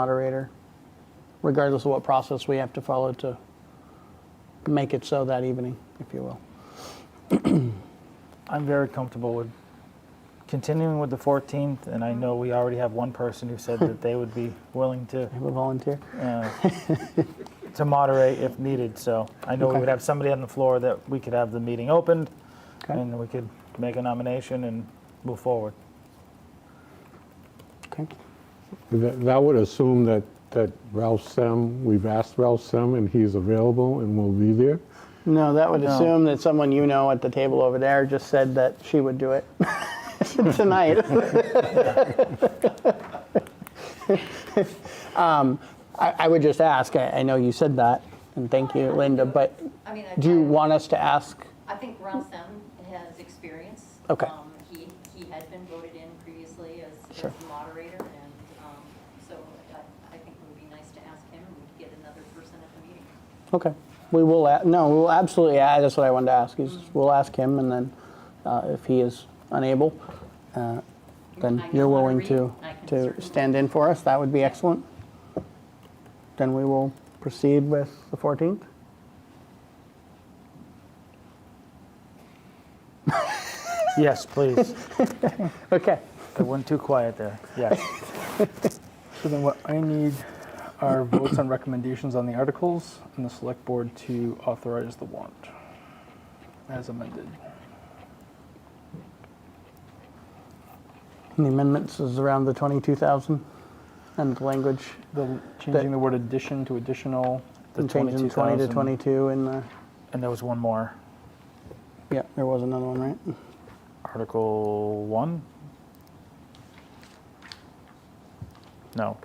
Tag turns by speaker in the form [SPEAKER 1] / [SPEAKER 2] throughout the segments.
[SPEAKER 1] moderator, regardless of what process we have to follow to make it so that evening, if you will.
[SPEAKER 2] I'm very comfortable with continuing with the 14th, and I know we already have one person who said that they would be willing to
[SPEAKER 1] Have a volunteer?
[SPEAKER 2] uh, to moderate if needed. So I know
[SPEAKER 1] Okay.
[SPEAKER 2] we would have somebody on the floor that we could have the meeting opened,
[SPEAKER 1] Okay,
[SPEAKER 2] and we could make a nomination and move forward.
[SPEAKER 1] okay.
[SPEAKER 3] That that would assume that, that Ralph Sem, we've asked Ralph Sem, and he's available and will be there.
[SPEAKER 1] No, that would
[SPEAKER 2] No.
[SPEAKER 1] assume that someone you know at the table over there just said that she would do it tonight. Um, I I would just ask, I I know you said that, and thank you, Linda, but
[SPEAKER 4] I mean, I.
[SPEAKER 1] do you
[SPEAKER 4] I-
[SPEAKER 1] want us to ask?
[SPEAKER 4] I think Ron Sem has experience.
[SPEAKER 1] Okay.
[SPEAKER 4] Um, He, he had been voted in previously as, as
[SPEAKER 1] Sure.
[SPEAKER 4] the moderator, and, um, so I, I think it would be nice to ask him, and we'd get another person at the meeting.
[SPEAKER 1] Okay, we will, a- no, we will absolutely, add- that's what I wanted to ask, is we'll ask him, and then uh, if he is unable, uh, then
[SPEAKER 4] I can
[SPEAKER 1] you're willing
[SPEAKER 4] moderate.
[SPEAKER 1] to,
[SPEAKER 4] I can
[SPEAKER 1] to
[SPEAKER 4] certainly-
[SPEAKER 1] stand in for us, that would be excellent. Then we will proceed with the 14th.
[SPEAKER 2] Yes, please.
[SPEAKER 1] Okay,
[SPEAKER 2] It went too quiet there. Yes.
[SPEAKER 5] So then what I need are votes on recommendations on the articles and the select board to authorize the warrant as amended.
[SPEAKER 1] the amendments is around the 22,000, and the language,
[SPEAKER 5] The, changing the word addition to additional, the
[SPEAKER 1] and changing 20 to
[SPEAKER 5] 22,000.
[SPEAKER 1] 22, and, uh,
[SPEAKER 2] And there was one more
[SPEAKER 1] yeah, there was another one, right?
[SPEAKER 2] Article 1? No.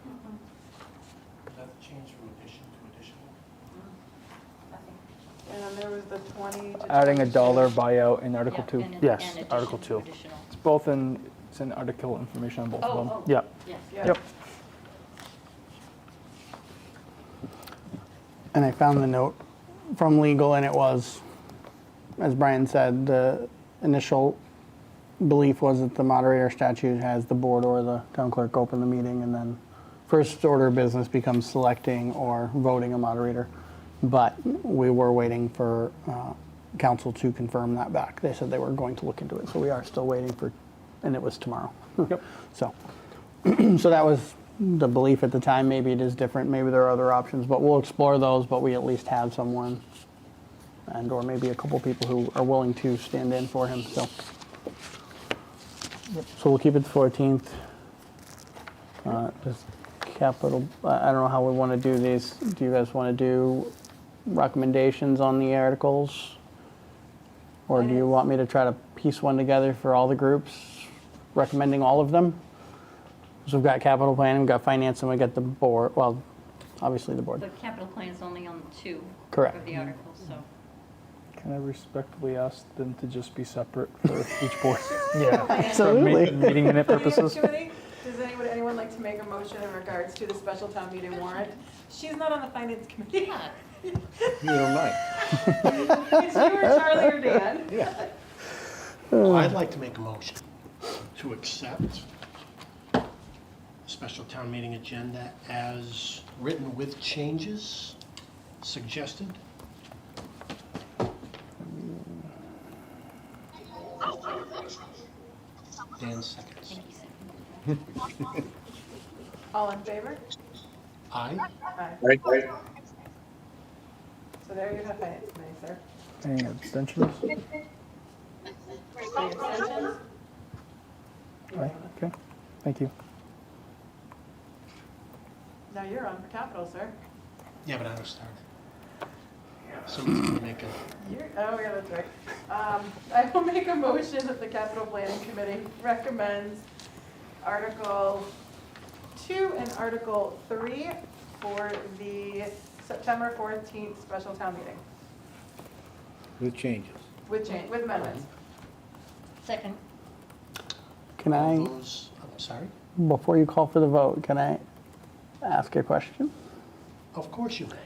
[SPEAKER 6] That's change from addition to additional.
[SPEAKER 4] I think-
[SPEAKER 7] And then there was the 20 to.
[SPEAKER 5] Adding a
[SPEAKER 7] 22.
[SPEAKER 5] dollar buyout in Article
[SPEAKER 4] yeah,
[SPEAKER 5] 2.
[SPEAKER 4] and-
[SPEAKER 2] Yes,
[SPEAKER 4] and addition
[SPEAKER 2] Article
[SPEAKER 4] to
[SPEAKER 2] two.
[SPEAKER 4] additional.
[SPEAKER 5] It's both in, it's in article information on both
[SPEAKER 4] Oh,
[SPEAKER 5] of them.
[SPEAKER 4] oh.
[SPEAKER 2] Yeah.
[SPEAKER 4] Yes.
[SPEAKER 7] Yeah.
[SPEAKER 5] Yep.
[SPEAKER 1] And I found the note from legal, and it was, as Brian said, the initial belief was that the moderator statute has the board or the town clerk open the meeting, and then first order of business becomes selecting or voting a moderator. But we were waiting for uh, council to confirm that back. They said they were going to look into it, so we are still waiting for, and it was tomorrow. Yep. So. So that was the belief at the time. Maybe it is different. Maybe there are other options, but we'll explore those. But we at least have someone, and or maybe a couple people who are willing to stand in for him. So, so we'll keep it the 14th. Uh, just capital. I I don't know how we want to do these. Do you guys want to do recommendations on the articles, or do you want me to try to piece one together for all the groups, recommending all of them? So we've got capital planning, we've got finance, and we got the board, well, obviously the
[SPEAKER 4] The
[SPEAKER 1] board.
[SPEAKER 4] capital plan is only on two.
[SPEAKER 1] Correct.
[SPEAKER 4] Of the articles, so.
[SPEAKER 5] Can I respectfully ask them to just be separate for each board?
[SPEAKER 2] Yeah.
[SPEAKER 5] For me-
[SPEAKER 1] Absolutely.
[SPEAKER 5] Meeting minute
[SPEAKER 7] Planning
[SPEAKER 5] purposes?
[SPEAKER 7] Committee, Does anyone, anyone like to make a motion in regards to the special town meeting warrant? She's not on the finance committee.
[SPEAKER 4] Yeah.
[SPEAKER 3] You don't mind.
[SPEAKER 7] It's you or Charlie or Dan.
[SPEAKER 3] Yeah.
[SPEAKER 6] I'd like to make a motion to accept special town meeting agenda as written with changes suggested. Dan seconds.
[SPEAKER 4] Thank you, Sam.
[SPEAKER 7] All in favor?
[SPEAKER 6] Aye.
[SPEAKER 7] Aye. So there you have finance committee, sir.
[SPEAKER 5] Any abstentions?
[SPEAKER 7] Any abstentions?
[SPEAKER 5] Aye, okay, thank you.
[SPEAKER 7] Now you're on for capital, sir.
[SPEAKER 6] Yeah, but I was started. Somebody's gonna make a.
[SPEAKER 7] You're, oh, yeah, that's right. Um, I will make a motion that the capital planning committee recommends Article Two and Article Three for the September fourteenth special town meeting
[SPEAKER 8] With changes.
[SPEAKER 7] with change, with amendments.
[SPEAKER 4] Second,
[SPEAKER 1] Can
[SPEAKER 6] all
[SPEAKER 1] I,
[SPEAKER 6] those- I'm sorry?
[SPEAKER 1] before you call for the vote, can I ask a question?
[SPEAKER 6] Of course you may.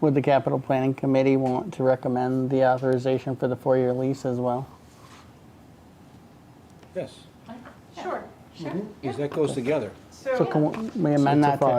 [SPEAKER 1] Would the capital planning committee want to recommend the authorization for the four-year lease as well?
[SPEAKER 8] Yes,
[SPEAKER 7] Sure, sure.
[SPEAKER 4] Mhm.
[SPEAKER 8] because that goes together.
[SPEAKER 9] So can we amend
[SPEAKER 1] So
[SPEAKER 9] that
[SPEAKER 1] it's a
[SPEAKER 9] to